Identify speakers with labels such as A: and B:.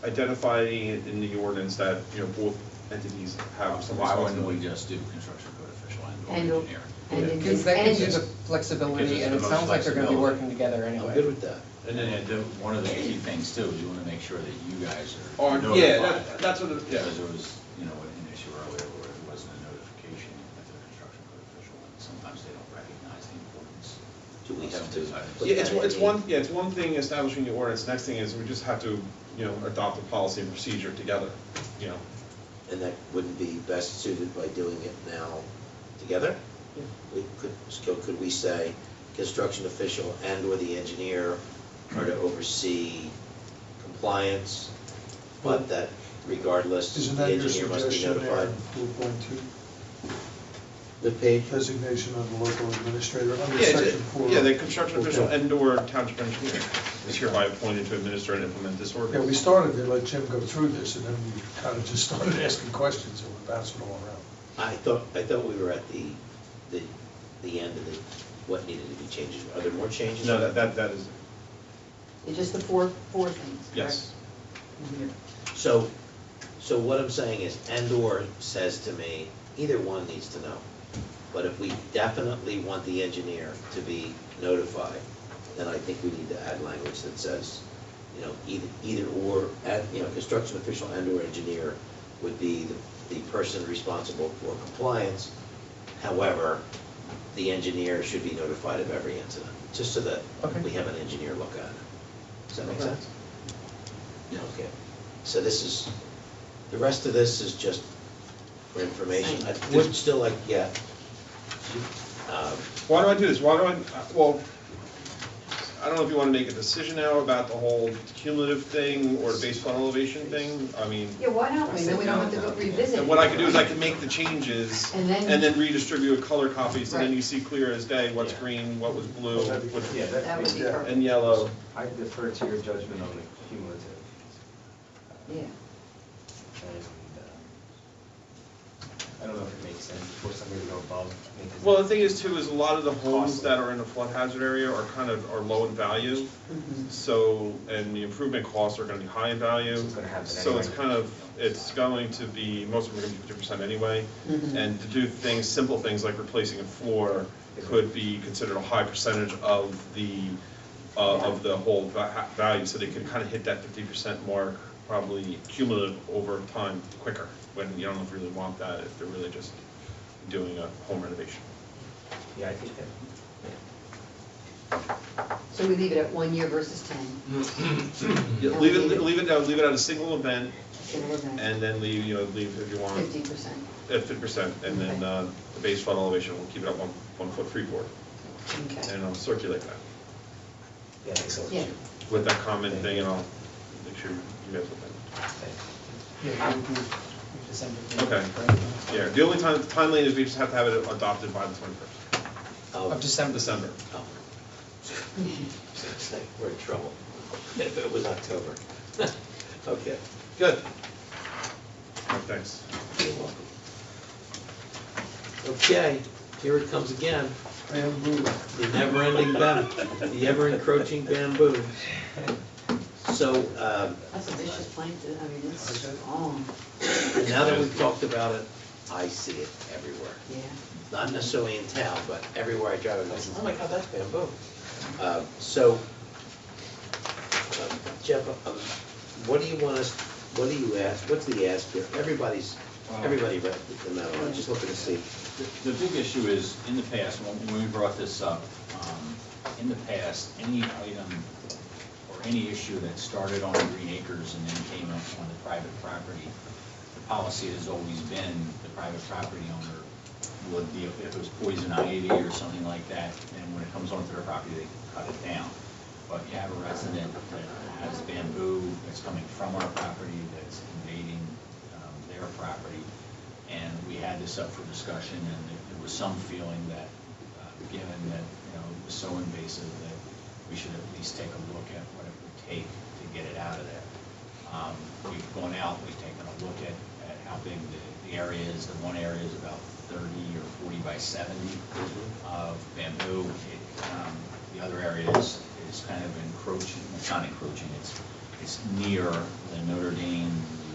A: identifying it in the ordinance that, you know, both entities have
B: So
A: some
B: why wouldn't we
A: responsibility.
B: just do construction code official and
C: And,
B: or engineer?
C: and it
D: Because
C: just
D: that gives you
C: ends.
D: the
A: Gives us
D: flexibility, and
A: the
D: it sounds like they're gonna be
B: flexibility.
D: working together
E: I'm good
D: anyway.
E: with that.
B: And then, uh, the- one of the key things too, is you want to make sure that you guys
A: Or-
B: are
A: Oh, yeah,
B: notified.
A: that- that's what it- yeah.
B: Because there was, you know, an issue earlier where it wasn't a notification at the construction code official, and sometimes they don't recognize the importance.
E: Do we
B: of
E: have
B: some
E: to
B: of these items.
E: put
A: Yeah, it's,
E: that
A: one- it's
E: in?
A: one, yeah, it's one thing establishing the ordinance, next thing is we just have to, you know, adopt a policy and procedure together, you know.
E: And that wouldn't be best suited by doing it now together? We could, so could we say, construction official and/or the engineer are to oversee compliance, but that regardless,
F: Isn't
E: the
F: that your
E: engineer must be
F: suggestion there,
E: notified?
F: four point two,
E: The page,
F: designation of the local administrator under
A: Yeah,
F: section
A: it's-
F: four?
A: yeah, the construction
F: Okay.
A: official and/or township engineer is hereby appointed to administer and implement this
F: Yeah,
A: ordinance.
F: we started to let Jim go through this, and then we kind of just started asking questions, and we're bouncing all around.
E: I thought, I thought we were at the, the, the end of the, what needed to be changed. Are there more changes?
A: No, that, that, that is,
C: It's just the four, four things, correct?
A: yes.
E: So, so what I'm saying is, and/or says to me, either one needs to know. But if we definitely want the engineer to be notified, then I think we need to add language that says, you know, either, either or, and, you know, construction official and/or engineer would be the, the person responsible for compliance. However, the engineer should be notified of every incident, just so that we have an engineer look at it. Does that make
A: Okay.
E: sense? Okay, so this is, the rest of this is just for information. I would still like, yeah. Um,
A: Why do I do this? Why do I, uh, well, I don't know if you want to make a decision now about the whole cumulative thing or the base flood elevation thing, I mean,
C: Yeah, why don't we, then we don't have to go revisit.
A: and what I could do is I could make the changes
C: And then-
A: and then redistribute color copies, and then
C: Right.
A: you see clear as day what's
B: Yeah.
A: green, what was blue,
F: That'd be
A: what-
F: good.
G: Yeah,
C: That would
G: that,
C: be
F: Yeah.
C: perfect,
A: and yellow.
G: I defer to your judgment on the cumulative.
C: yeah.
G: And, uh, I don't know if it makes sense for somebody to go above. because-
A: Well, the thing is too, is a lot of the homes
G: Costly.
A: that are in the flood hazard area are kind of, are low in value. So, and the improvement costs are gonna be high in value.
G: So it's gonna happen
A: So it's
G: anyway.
A: kind of, it's going to be, most of them are gonna be fifty percent anyway. And to do things, simple things like replacing a floor could be considered a high percentage of the, uh, of the whole va- ha- value. So they could kind of hit that fifty percent mark, probably cumulative over time quicker, when you don't really want that if they're really just doing a home renovation.
G: Yeah, I think that,
C: So we leave it at one year versus ten.
A: Yeah, Leave it, leave it, no, leave it at a single event, and then leave, you know, leave if you want,
C: Fifty percent.
A: at fifty percent, and then,
C: Okay.
A: uh, the base flood elevation, we'll keep it at one, one foot freeboard,
C: Okay.
A: and I'll circulate that
G: yeah, thanks so much.
C: Yeah.
A: with that comment thing, and I'll make sure you guys will.
D: Yeah, it would be December.
A: Okay. Yeah, the only time, timeline is we just have to have it adopted by the twenty-first,
E: oh,
D: Of December.
A: December.
E: oh. It's like We're in trouble. If it was October. Okay, good.
A: Thanks.
E: You're welcome. Okay, here it comes again,
F: Bamboo.
E: the never-ending bam, the ever-encroaching bamboo. So, um,
C: That's a vicious plankton, I mean, it's
F: Okay.
C: long,
E: And now that we've talked about it, I see it everywhere.
C: yeah.
E: Not necessarily in town, but everywhere I drive, I'm like, oh my God, that's bamboo. Uh, So, um, Jeff, um, what do you want us, what do you ask, what's the ask here? Everybody's, everybody read the memo, I'm just looking to see.
B: The- The big issue is, in the past, when when we brought this up, um, in the past, any item or any issue that started on Green Acres and then came up on the private property, the policy has always been the private property owner would be, if it was poison ivy or something like that, then when it comes onto their property, they cut it down. But you have a resident that has bamboo that's coming from our property, that's invading um, their property, and we had this up for discussion, and there- there was some feeling that, uh, given that, you know, it was so invasive, that we should at least take a look at what it would take to get it out of there. Um, We've gone out, we've taken a look at, at how big the, the area is. The one area is about thirty or forty by seventy of bamboo. It, um, The other area is, is kind of encroaching, it's not encroaching, it's it's near the Notre Dame